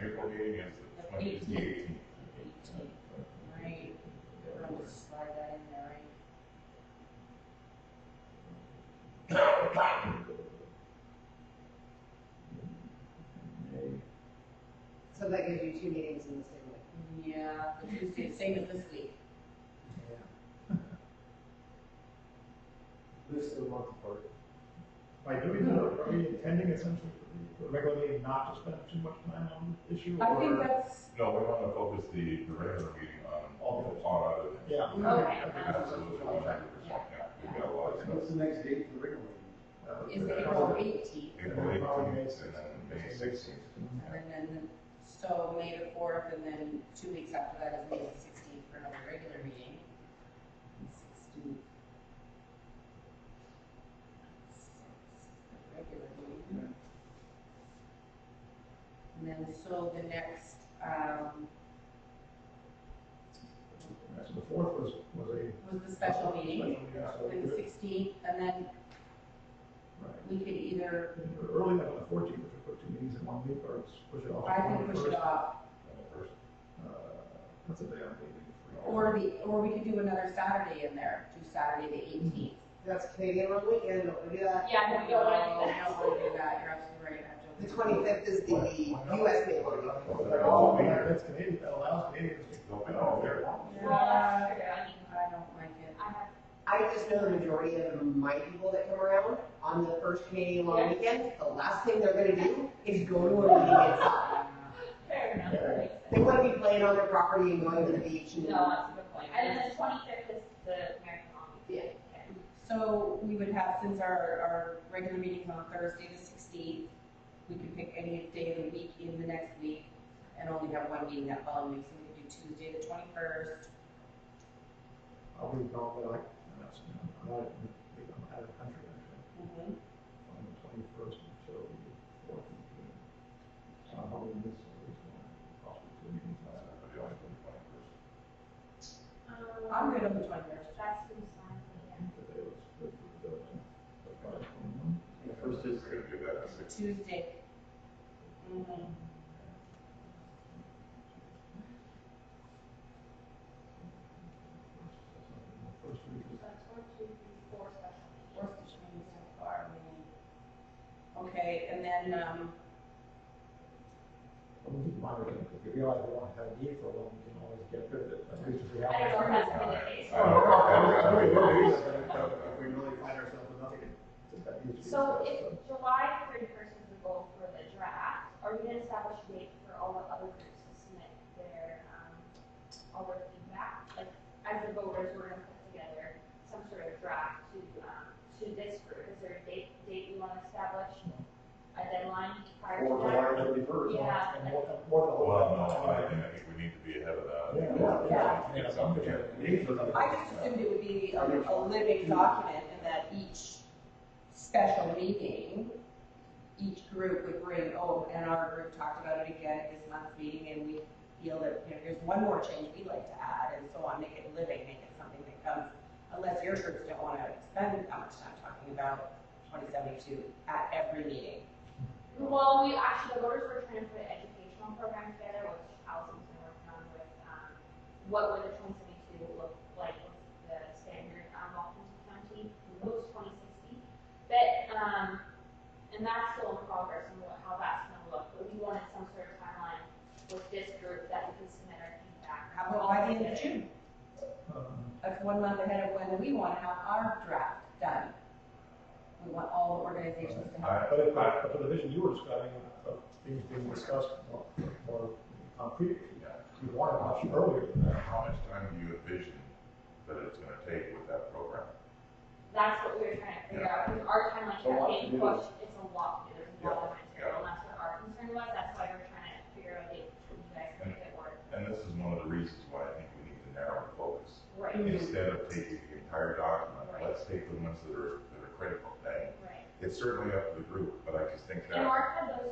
April the eighteenth, twenty Eighteenth. eighteen. Eighteen, right, we're gonna slide that in there, right? So that gives you two meetings in the same week. Yeah, the Tuesday, same as this week. This is a month apart. By doing that, are we intending essentially for the regular meeting not to spend too much time on this issue? I think or- that's, No, we want to focus the, the regular meeting All on, of it. on other things. Yeah. Okay. I think that's what Absolutely, we're one trying hundred percent, yeah, we've got a lot of What's stuff. the next date for the regular meeting? to do. is Yeah. April eighteenth, April eighteenth and then May sixteenth. and then, so May the fourth, and then two weeks after that is May the sixteenth for another regular meeting. Sixteenth. Regular meeting. And then, so the next, um, Right, So the fourth was, was a. was the special meeting, so and the we- sixteenth, and then Right. we could either, I think we're Early on the fourteenth, if we put two meetings in one week, or just push it off. I to think push it 21st. off Uh, That's a day I'm leaving for. Or the, or we could do another Saturday in there, do Saturday the eighteenth. That's Canadian Run Weekend, don't do that. Yeah, no, we don't want to do that. We don't want to do that, you're absolutely right. I have to- The twenty-fifth is the US meeting. They're all, that's Canadian, that allows Canadians to. Don't be all there. Well, that's true, I mean, I don't like it. I have, I just know the majority of my people that come around on the first Canadian Run Weekend, the last thing they're gonna do is go to a meeting outside. fair enough, that makes sense. They wanna be playing on their property and going to the beach and. No, that's a good point. And then the twenty-fifth is the American Honky. Yeah. Okay. So we would have, since our, our regular meeting's on Thursday the sixteenth, we could pick any day of the week in the next week and only have one meeting that following week, so we could do Tuesday the twenty-first. I'll be probably like, I'm not, I'm not, I'm out of the country, actually. on the twenty-first until the fourth of June. So I'm hoping this is one, possibly two meetings last night. I'm Um, good on the twenty-first. that's who's on the, Today was the, the, the five twenty-one. The first is, We're gonna do that at six. Tuesday. Mhm. First week uh, is, that's one, two, three, four special meetings. Worst it's been so far, I mean. Okay, and then, um, well, we keep monitoring, because we realize we don't have a need for one, we can always get rid of it, but at least if we have. I don't know if it. that's been the case. I don't If know. we really- Alright. if we really find ourselves with nothing, that needs to be So discussed, if July thirty-first is the goal for the draft, are we gonna establish a date for all the other groups to submit their, um, all their feedback? Like, as the voters, we're gonna put together some sort of draft to, um, to this group, is there a date, date you wanna establish? A deadline prior Or to July that? thirty-first. Yeah. And what, what. Well, no, I think, I think we need to be ahead of that. Yeah. Get some, yeah. I just assumed it would be a, a living document and that each special meeting, each group would bring, oh, and our group talked about it again at this month's meeting and we feel that, you know, here's one more change we'd like to add and so on, make it living, make it something that comes, unless your groups don't wanna spend that much time talking about twenty seventy-two at every meeting. Well, we actually, the voters were trying to put an educational program together, which Allison's been working on with, um, what would the twenty seventy-two look like with the standard, um, Washington County, what was twenty sixty? But, um, and that's still in progress and what, how that's gonna look, but we wanted some sort of timeline with this group that we could submit our feedback. How about by the end of June? Um, That's one month ahead of when we want to have our draft done. We want all the organizations to have. I- But if, but for the vision you were describing of things being discussed more, more concretely, you want it much earlier than that. How much time do you envision that it's gonna take with that program? That's what we were trying to figure out, because our A lot timeline kept to getting do. pushed, it's a lot, to do. there's a lot of Yeah. material, and that's what our concern was, that's why we were trying to figure out a date for you guys to make it work. And this is one of the reasons why I think we need to narrow the focus. Right, Instead of taking the entire document, let's take the ones that are, that are critical. And right. It's certainly up to the group, but I just think that. And Mark had those